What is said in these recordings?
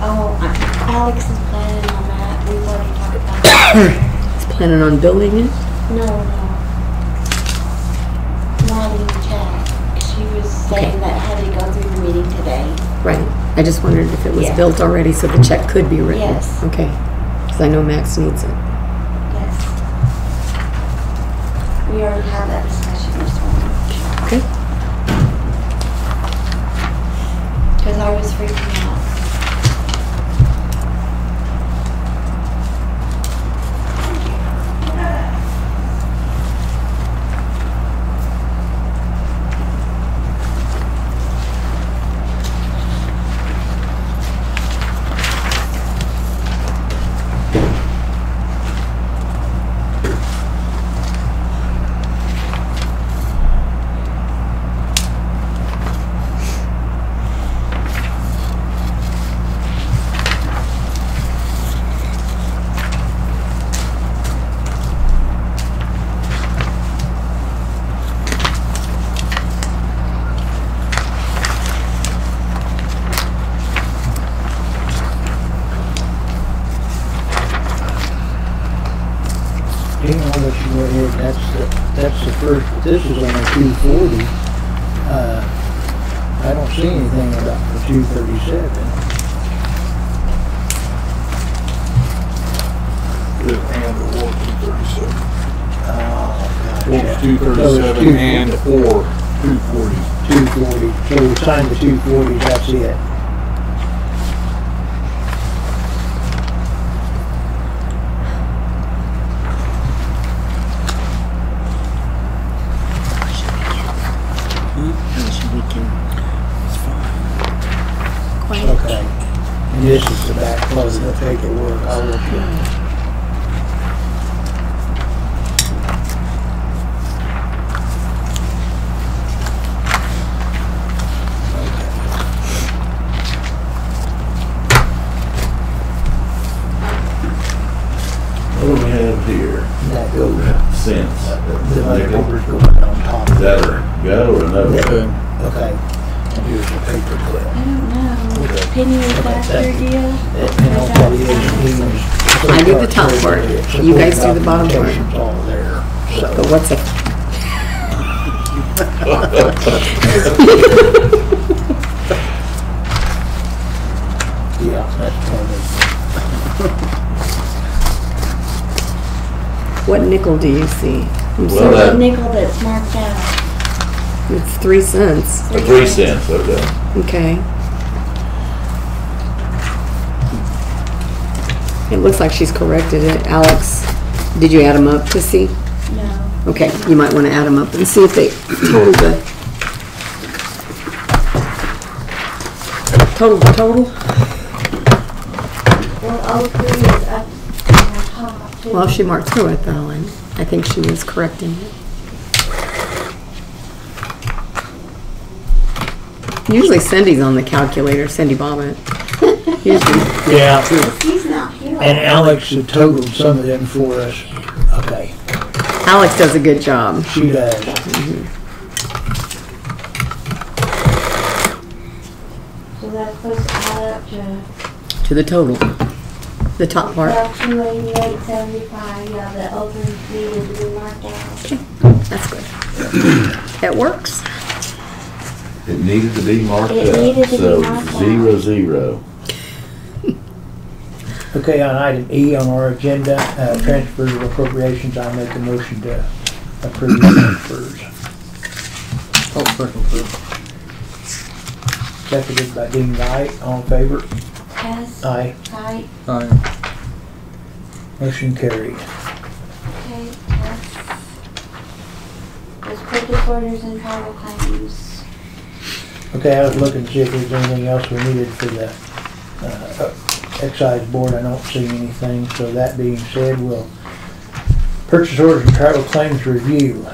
Oh, Alex is planning on that, we've already talked about that. It's planning on building it? No, no. Lonnie Jack, she was saying that had to go through the meeting today. Right. I just wondered if it was Yeah. built already so the check could be written. Yes. Okay. Because I know Max needs it. Yes. We already had that discussion this morning. Okay. Because I was freaking out. Hang on, let you go ahead, that's, the- that's the first, this is on the two forty. Uh, I don't see anything about the two thirty-seven. Yeah, and it was two thirty-seven. It was Oh, two thirty-seven and or two forty. Two forty, so we signed the two forty, that's it. Okay. And this is the back close of the paperwork, I'll look at. What do we have here? That goes, Cents. the Nickel. paperwork's going on top Is of that that. a go or another? Okay. And here's the paperclip. I don't know. Penny was last that- year deal. And all that is, he was- I do the top part. You guys do the bottom part. It's all there, so. But what's it? Yeah, that's part of What nickel do you see? I'm Well, sorry. The that- nickel that's marked out. It's three cents. Three cents, okay. Okay. It looks like she's corrected it. Alex, did you add them up to see? No. Okay, you might want to add them up and see if they total the... Total, total? Well, all three is up on the top. too. Well, she marked through it though, and I think she was correcting it. Usually Cindy's on the calculator, Cindy Bobbit. Usually, it. Yeah. He's not here. And Alex had totaled some of them for us. Okay, Alex does a good job. she does. So that's supposed to add up to To the total. The top part, about two eighty-eight seventy-five, yeah, the open meeting is marked out. that's good. That works. It needed to be marked It up, needed to be so marked up. zero, zero. Okay, on item E on our agenda, uh, transfer of appropriations, I make a motion to approve the transfers. Seconded by Dean Wright, all in favor? Hess, Aye. Kite, Oh, Motion carried. okay, Hess. There's purchase orders and travel claims. Okay, I was looking to see if there's anything else we needed for the uh, excise board. I don't see anything, so that being said, we'll purchase orders and travel claims review.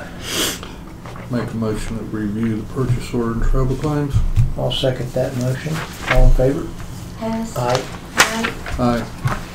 Make a motion to review the purchase order and travel claims. I'll second that motion. All in favor? Hess, Aye. Kite, Aye.